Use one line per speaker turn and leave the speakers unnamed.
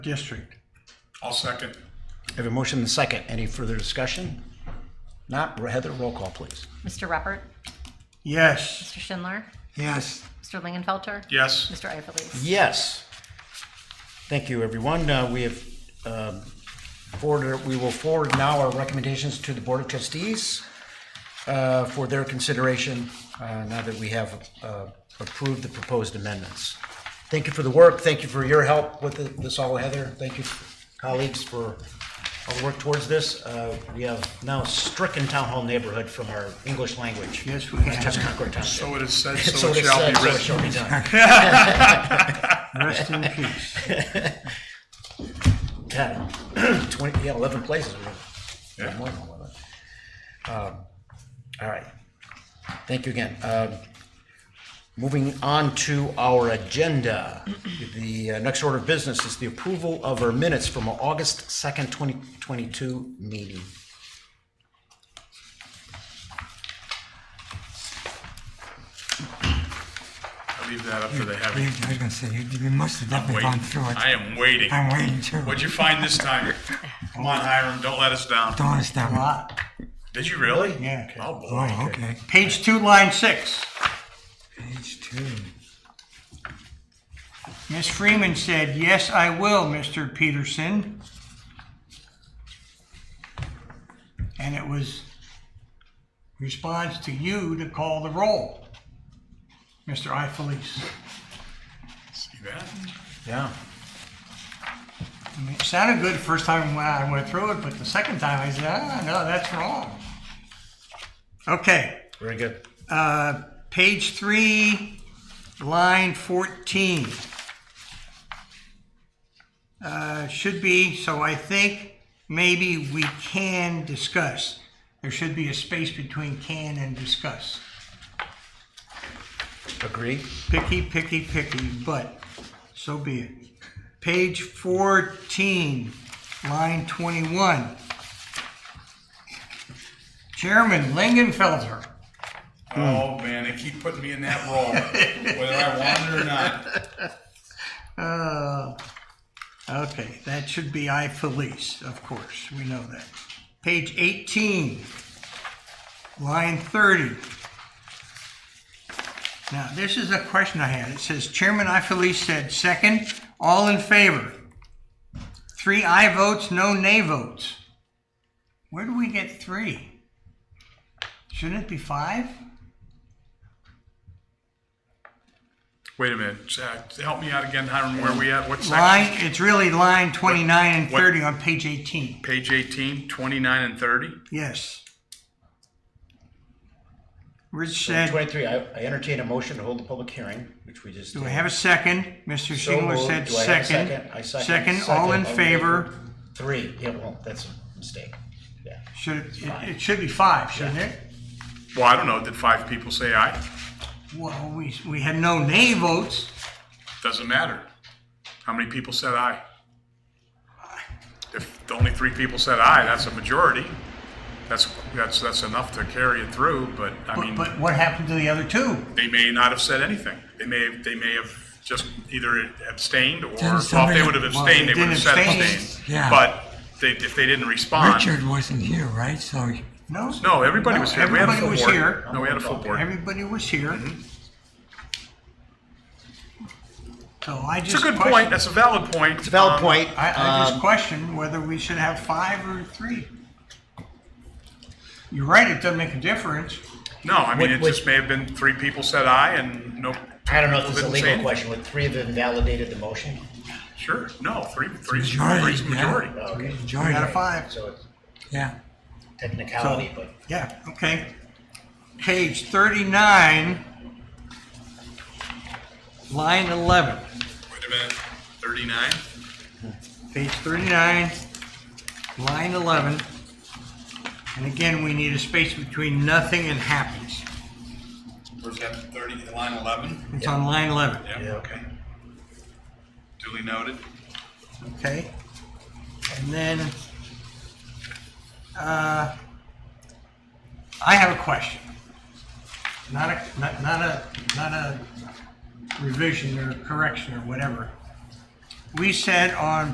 district.
I'll second.
I have a motion and a second. Any further discussion? Not Heather, roll call, please.
Mr. Repert,
Yes.
Mr. Schindler,
Yes.
Mr. Lingenfelter,
Yes,
Mr. Ifelis.
Yes. Thank you, everyone. Uh, We have um, forwarded, we will forward now our recommendations to the Board of Trustees uh, for their consideration uh, now that we have uh, approved the proposed amendments. Thank you for the work. Thank you for your help with the- this all, Heather. Thank you, colleagues, for all the work towards this. Uh, We have now stricken Town Hall neighborhood from our English language.
Yes, we have.
Just Concord Township.
so it is said,
So
so
it
it
is
shall
said,
be
so it shall
written.
be done.
Rest in peace.
Yeah, twenty, yeah, eleven places. we have.
Yeah.
More than 11. Um, All right. Thank you again. Um, Moving on to our agenda. The uh, next order of business is the approval of our minutes from our August second, twenty twenty-two meeting.
I leave that up to the
You-
heavy.
I was gonna say, you, you must have definitely gone
Waiting.
through it.
I am waiting.
I'm waiting too.
What'd you find this time? Come on, Hiram, don't let us down.
Don't understand. Oh,
Did you really?
Yeah.
Oh, boy.
okay.
Page two, line six.
Page two.
Miss Freeman said, yes, I will, Mr. Peterson. And it was response to you to call the roll, Mr. Ifelis.
See that?
Yeah.
I mean, It sounded good the first time when I went through it, but the second time I said, ah, no, that's wrong. Okay.
Very good.
Uh, page three, line 14. Uh, Should be, so I think maybe we can discuss. There should be a space between can and discuss.
Agree?
Picky, picky, picky, but so be it. Page 14, line 21. Chairman Lingenfelter.
Oh, man, they keep putting me in that role, whether I want it or not.
Uh, Okay, that should be I Felice, of course, we know that. Page 18, line 30. Now, this is a question I had. It says Chairman I Felice said, second, all in favor. Three I votes, no nay votes. Where do we get three? Shouldn't it be five?
Wait a minute, Zach, help me out again, Hiram, where we at? What
Line,
section?
it's really line 29 and
What-
30 on page 18.
Page 18, 29 and 30?
Yes. Rich said,
Twenty-three, I I entertain a motion to hold the public hearing, which we just.
do I
did.
have a second? Mr.
So
Shingler
moved.
said
Do I have a
second.
I
Second, all in
Second. Oh,
favor.
Three, yeah, well, that's a mistake. Yeah.
Should, it it should be five, shouldn't it?
Well, I don't know, did five people say aye?
Well, we, we had no nay votes.
Doesn't matter. How many people said aye? If only three people said aye, that's a majority. That's, that's, that's enough to carry it through, but I
But,
mean,
but what happened to the other two?
they may not have said anything. They may, have they may have just either abstained or, well,
Didn't
if they
somebody-
would have
well,
abstained, they
they
would have
didn't
said
abstain.
abstain.
Yeah.
But they, if they didn't respond,
Richard wasn't here, right? So
No?
no, everybody
No,
was here. We had a
everybody
full
was
board.
here.
No, we had a Mm-hmm. full board.
Everybody was here. So I
It's a
just
good point.
question,
That's a valid point. It's
It's a valid point.
I, I
Um,
just question whether we should have five or three. You're right, it doesn't make a difference.
No, I mean,
What-
it
what-
just may have been three people said aye and no.
I don't know if this is a
didn't say
legal
anything.
question, would three have invalidated the motion?
Sure, no, three, three,
majority,
three's
yeah.
majority.
Okay,
enjoy
We got a
it.
five.
so it's
Yeah.
technicality, but
Yeah, okay. Page 39, line 11.
Wait a minute, thirty-nine?
Page 39, line 11. And again, we need a space between nothing and happens.
Where's that, thirty, line eleven?
It's on line 11,
Yeah, okay.
Duly noted.
okay? And then, uh, I have a question. Not a, not not a, not a revision or correction or whatever. We said on